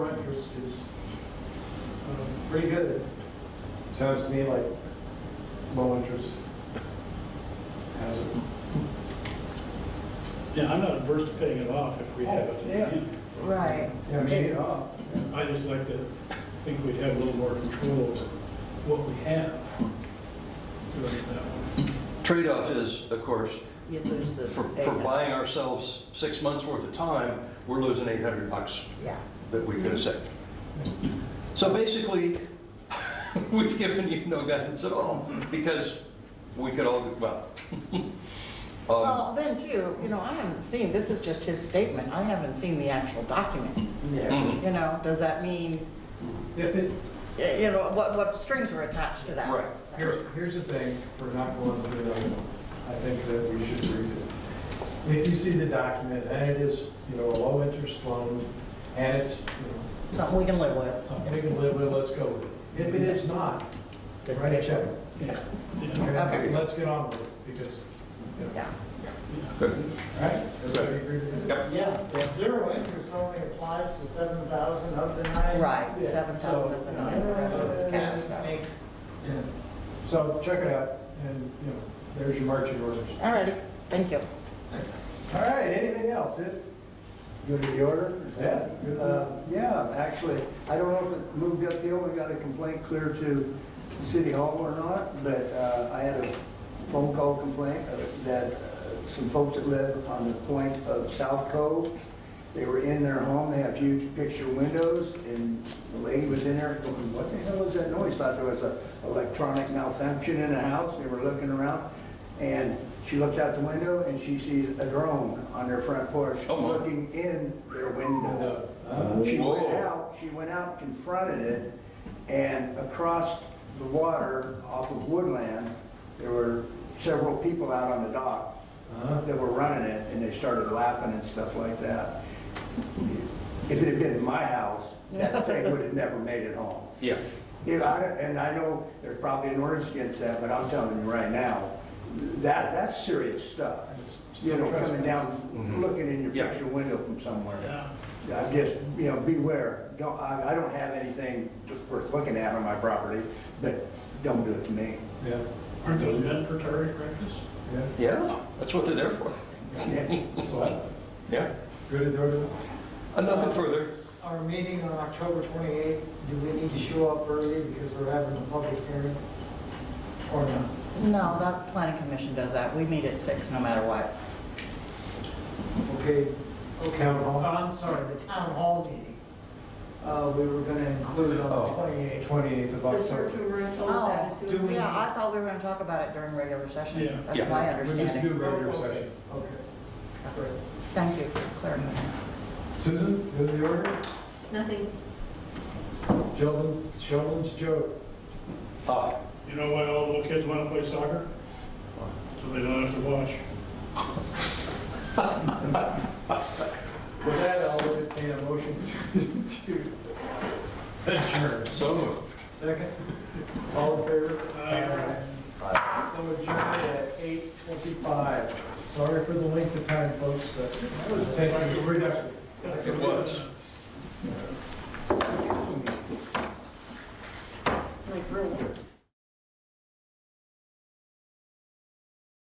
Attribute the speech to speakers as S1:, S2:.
S1: um, pretty good. Sounds to me like low interest housing.
S2: Yeah, I'm not averse to paying it off if we have it.
S1: Yeah.
S3: Right.
S1: Yeah, pay it off.
S2: I just like to think we'd have a little more control over what we have. Doing it that way.
S4: Trade-off is, of course,
S3: You lose the.
S4: for, for
S3: data.
S4: buying ourselves six months' worth of time, we're losing 800 bucks
S3: Yeah.
S4: that we could have saved. So basically, we've given you no guidance at all, because we could all, do well. Um,
S3: Well, then too, you know, I haven't seen, this is just his statement, I haven't seen the actual document.
S1: Yeah.
S4: mhm,
S3: You know, does that mean,
S1: If it,
S3: y- you know, what, what strings are attached to that?
S4: Right.
S1: Here's, here's the thing, for not going through those, I think that we should read it. If you see the document, and it is, you know, a low-interest loan, and it's, you
S3: Something we can live
S1: know,
S3: with.
S1: something we can live with, let's go with it. If it is not, then write a check.
S2: Yeah,
S1: Okay,
S4: Okay.
S1: let's get on with it, because, you know,
S3: Yeah.
S4: good.
S1: all right? Everybody agree with that?
S4: Yep.
S5: Yeah, the zero interest only applies to seven thousand of the nine.
S3: Right,
S1: Yeah.
S3: seven thousand of the nine, the rest of it's cash. so.
S5: Makes,
S1: Yeah. So check it out, and, you know, there's your marching orders.
S3: All righty, thank you.
S1: All right, anything else, Ed?
S6: Go to the order? Is that-
S1: Yeah.
S6: Uh, Yeah, actually, I don't know if it moved up uphill, we got a complaint clear to City Hall or not, but uh, I had a phone call complaint of- that uh, some folks that live on the point of South Cove, they were in their home, they have huge picture windows, and the lady was in there going, what the hell is that noise? Thought there was a electronic malfunction in the house, they were looking around, and she looks out the window and she sees a drone on their front porch
S4: Oh, my. Oh,
S6: looking in their window. She went
S4: Whoa.
S6: out, she went out, confronted it, and across the water off of Woodland, there were several people out on the dock that were running it, and they started laughing and stuff like that. If it had been in my house, that thing would have never made it home.
S4: Yeah.
S6: If I, and I know there's probably an ordinance against that, but I'm telling you right now, that, that's serious stuff. You know, coming down,
S4: Mhm.
S6: looking in your
S4: Yeah.
S6: picture window from somewhere.
S2: yeah.
S6: I just, you know, beware, don't, I, I don't have anything worth looking at on my property, but don't do it to me.
S1: Yeah,
S2: Aren't those meant for target practice?
S1: yeah.
S4: Yeah, that's what they're there for.
S1: So I-
S4: Yeah.
S1: Good, Eduardo?
S4: Uh, Nothing further.
S5: our meeting on October twenty-eighth, do we need to show up early because we're having a public hearing? Or not?
S3: No, that planning commission does that, we meet at six no matter what.
S5: Okay,
S1: Town hall?
S5: Oh, I'm sorry, the town hall meeting, uh, we were gonna include on
S1: Oh.
S5: the twenty-eighth.
S1: 28th of
S7: The
S1: October.
S7: short-term rental is
S3: Oh,
S7: added to it.
S5: Do we-
S3: yeah, I thought we were gonna talk about it during regular
S2: Yeah.
S3: session.
S4: Yeah.
S3: That's my
S1: We just
S3: understanding.
S1: do regular session.
S5: Oh, Okay. Great.
S3: Thank you for clarifying.
S1: Susan, go to the order.
S7: Nothing
S1: Sheldon, Sheldon's joke.
S4: Ah,
S2: You know why all little kids want to play soccer? So they don't have to watch.
S1: With that, I'll entertain a motion to to adjourn.
S4: so moved.
S1: Second, all in favor?
S2: Aye.
S1: Aye. So adjourned at 8:25. Sorry for the length of time, folks, but thank you for your effort.
S4: It was.